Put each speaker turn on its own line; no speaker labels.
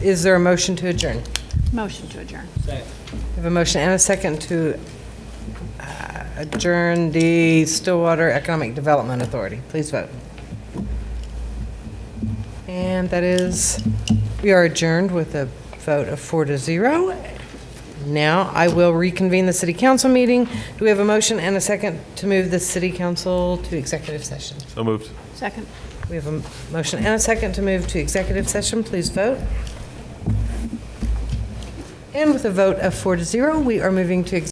Is there a motion to adjourn?
Motion to adjourn.
We have a motion and a second to uh, adjourn the Stillwater Economic Development Authority. Please vote. And that is, we are adjourned with a vote of four to zero. Now I will reconvene the city council meeting. Do we have a motion and a second to move the city council to executive session?
So moved.
Second.
We have a motion and a second to move to executive session. Please vote. And with a vote of four to zero, we are moving to executive